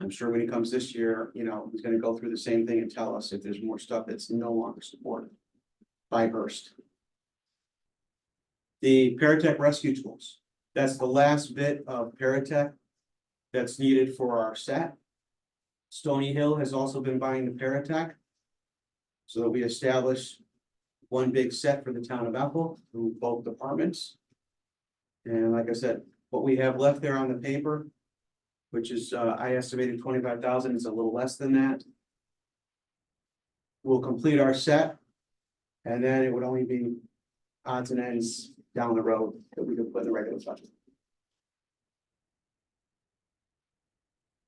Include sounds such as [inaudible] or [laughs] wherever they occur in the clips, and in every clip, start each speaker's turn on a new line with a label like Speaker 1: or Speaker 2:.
Speaker 1: I'm sure when he comes this year, you know, he's gonna go through the same thing and tell us if there's more stuff that's no longer supported by Hearst. The Paratech rescue tools, that's the last bit of Paratech that's needed for our set. Stony Hill has also been buying the Paratech. So that we establish one big set for the town of Bethel through both departments. And like I said, what we have left there on the paper, which is, uh, I estimated twenty-five thousand, it's a little less than that. We'll complete our set, and then it would only be odds and ends down the road that we could put in the regular budget.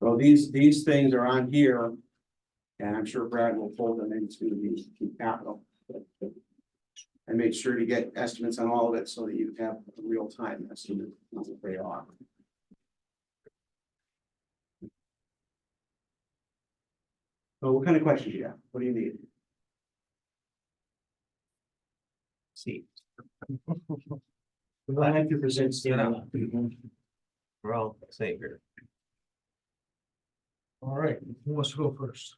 Speaker 1: So these, these things are on here, and I'm sure Brad will fold them into the capital. And make sure to get estimates on all of it so that you have a real-time estimate of what they are. So what kind of questions you have? What do you need?
Speaker 2: See. We're gonna have to present Steve. We're all safe here.
Speaker 3: All right, who wants to go first?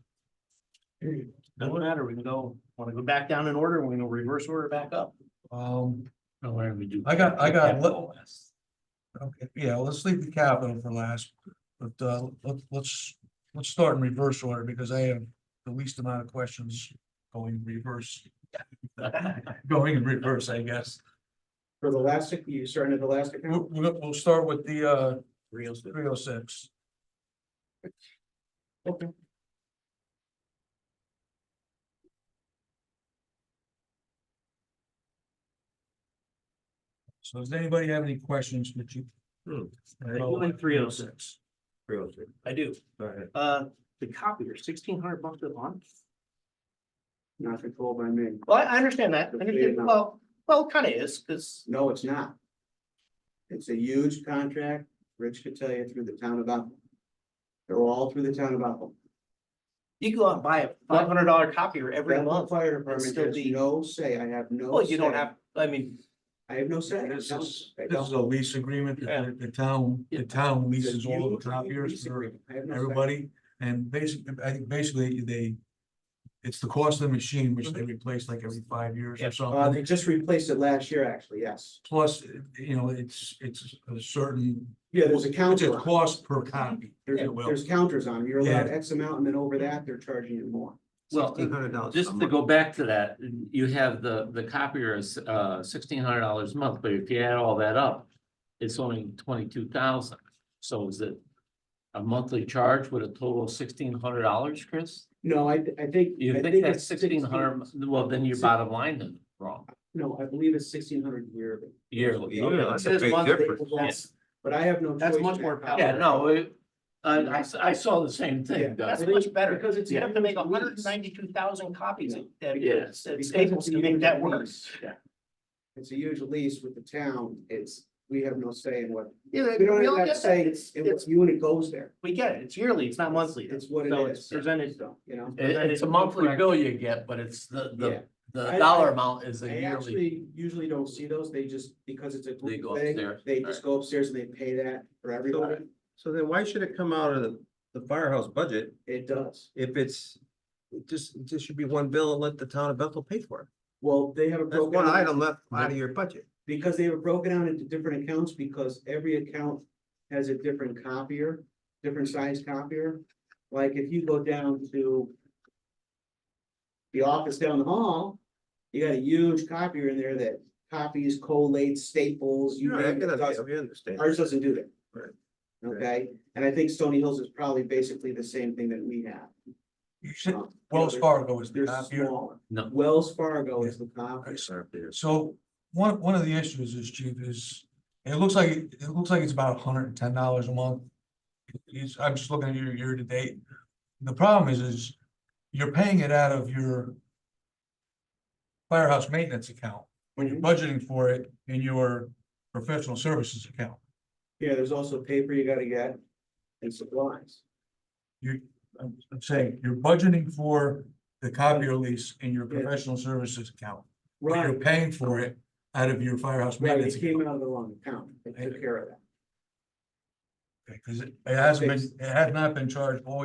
Speaker 2: Doesn't matter, we can go, wanna go back down in order, we're gonna reverse order back up.
Speaker 3: Um,
Speaker 2: Whatever we do.
Speaker 3: I got- I got- okay, yeah, let's leave the capital for last, but uh, let- let's, let's start in reverse order because I have the least amount of questions going reverse. [laughs] Going in reverse, I guess.
Speaker 1: For the last, ac- you starting at the last account?
Speaker 3: We'll, we'll we'll start with the uh,
Speaker 2: Real.
Speaker 3: three oh six.
Speaker 1: Okay.
Speaker 3: So does anybody have any questions that you?
Speaker 2: Hmm.
Speaker 3: About
Speaker 2: Only 306.
Speaker 3: six.
Speaker 2: I do,
Speaker 3: All right.
Speaker 2: uh, the copier, sixteen hundred bucks a month.
Speaker 1: Not controlled by me.
Speaker 2: Well, I I understand that, I understand, well, well, it kinda is, cause
Speaker 1: No, it's not. It's a huge contract, Rich could tell you, through the town of Bethel. They're all through the town of Bethel.
Speaker 2: you can go out and buy a five hundred dollar copier every
Speaker 1: Bethel
Speaker 2: month.
Speaker 1: Fire
Speaker 2: It's
Speaker 1: Department
Speaker 2: still
Speaker 1: has
Speaker 2: the-
Speaker 1: no say, I have no.
Speaker 2: Well, you don't
Speaker 1: say.
Speaker 2: have, I mean,
Speaker 1: I have no say.
Speaker 3: This
Speaker 1: No,
Speaker 3: is,
Speaker 1: I
Speaker 3: this
Speaker 1: don't.
Speaker 3: is a lease agreement
Speaker 2: Yeah.
Speaker 3: that the- the town, the
Speaker 2: Yeah.
Speaker 3: town leases
Speaker 1: It's a
Speaker 3: all
Speaker 1: huge
Speaker 3: the copiers
Speaker 1: lease
Speaker 3: for
Speaker 1: agreement. I have no say.
Speaker 3: everybody. And basically, I think basically they, it's the cost of the machine, which they replace like every five years
Speaker 2: Yeah.
Speaker 1: Uh,
Speaker 3: or
Speaker 1: they
Speaker 3: something.
Speaker 1: just replaced it last year, actually, yes.
Speaker 3: Plus, you know, it's, it's a certain,
Speaker 1: Yeah, there's a
Speaker 3: it's a
Speaker 1: counter. on it.
Speaker 3: cost per copy.
Speaker 1: There's,
Speaker 3: if you will.
Speaker 1: there's counters on them. You're allowed
Speaker 3: Yeah.
Speaker 1: X amount and then over that, they're charging you more.
Speaker 4: Well,
Speaker 1: hundred dollars.
Speaker 4: just to go back to that, you have the, the copier is, uh, sixteen hundred dollars a month, but if you add all that up, it's only twenty-two thousand. So is it a monthly charge with a total of sixteen hundred dollars, Chris?
Speaker 1: No, I, I think. I
Speaker 4: You think that's
Speaker 1: it's
Speaker 4: sixteen hundred, well, then your bottom line is wrong.
Speaker 1: No, I believe it's sixteen hundred yearly.
Speaker 4: Yearly.
Speaker 2: Yeah,
Speaker 4: okay.
Speaker 2: that's a big difference.
Speaker 1: That's- But I have no.
Speaker 2: That's
Speaker 1: choice
Speaker 2: much
Speaker 1: in
Speaker 2: more
Speaker 1: that.
Speaker 2: powerful.
Speaker 4: Yeah, no, it- I, I s- I saw the same
Speaker 1: Yeah.
Speaker 4: thing, Doug.
Speaker 2: that's much better,
Speaker 1: Because
Speaker 2: because
Speaker 1: it's
Speaker 2: it's, you have to make
Speaker 1: every
Speaker 2: hundred
Speaker 1: week.
Speaker 2: and ninety-two thousand copies.
Speaker 1: Yeah.
Speaker 2: Yes.
Speaker 1: Because
Speaker 2: Staples
Speaker 1: it's
Speaker 2: to make
Speaker 1: huge
Speaker 2: that work.
Speaker 1: lease.
Speaker 2: Yeah.
Speaker 1: It's a huge lease with the town. It's, we have no say in what,
Speaker 2: Yeah,
Speaker 1: we don't
Speaker 2: all
Speaker 1: have to
Speaker 2: get
Speaker 1: say,
Speaker 2: that.
Speaker 1: it's, it's you and it goes there.
Speaker 2: We get it, it's yearly, it's not monthly.
Speaker 1: It's what it
Speaker 2: So
Speaker 1: is.
Speaker 2: it's presented,
Speaker 1: So, you know.
Speaker 4: It- it's a monthly bill you get, but it's the,
Speaker 1: Yeah.
Speaker 4: the,
Speaker 1: I-
Speaker 4: the dollar
Speaker 1: I-
Speaker 4: amount is a
Speaker 1: I
Speaker 4: yearly.
Speaker 1: actually usually don't see those, they just, because it's a
Speaker 4: They
Speaker 1: group
Speaker 4: go
Speaker 1: thing,
Speaker 4: upstairs.
Speaker 1: they just go upstairs and they pay that for everybody,
Speaker 5: So then why should it come out of the, the firehouse budget
Speaker 1: it does.
Speaker 5: if it's, it just, it just should be one bill and let the town of Bethel pay for it?
Speaker 1: Well, they have a
Speaker 5: That's
Speaker 1: broken,
Speaker 5: one
Speaker 1: down-
Speaker 5: item left out of your budget.
Speaker 1: because they were broken down into different accounts, because every account has a different copier, different size copier. Like if you go down to the office down the hall, you got a huge copier in there that copies, collates, staples, you
Speaker 5: You know, I
Speaker 1: name
Speaker 5: can,
Speaker 1: it, does
Speaker 5: I we understand.
Speaker 1: Ours doesn't do that.
Speaker 5: Right.
Speaker 1: Okay, and I think Stony Hills is probably basically the same thing that we have.
Speaker 3: You said
Speaker 1: Um,
Speaker 3: Wells
Speaker 1: they're-
Speaker 3: Fargo is the
Speaker 1: They're
Speaker 3: copier.
Speaker 1: smaller.
Speaker 4: No.
Speaker 1: Wells Fargo is the copier.
Speaker 3: So one, one of the issues is chief is, it looks like, it looks like it's about hundred and ten dollars a month. It's- I'm just looking at your year to date. The problem is, is you're paying it out of your firehouse maintenance account, when you're budgeting for it in your professional services account.
Speaker 1: Yeah, there's also paper you gotta get and supplies.
Speaker 3: You, I'm, I'm saying, you're budgeting for the copier lease in your
Speaker 1: Yeah.
Speaker 3: professional services account. but You're
Speaker 1: Right,
Speaker 3: paying for it out of your firehouse
Speaker 1: right,
Speaker 3: maintenance
Speaker 1: it came
Speaker 3: account.
Speaker 1: out of the wrong account, they took care of that.
Speaker 3: because it it hasn't been, it has not been charged all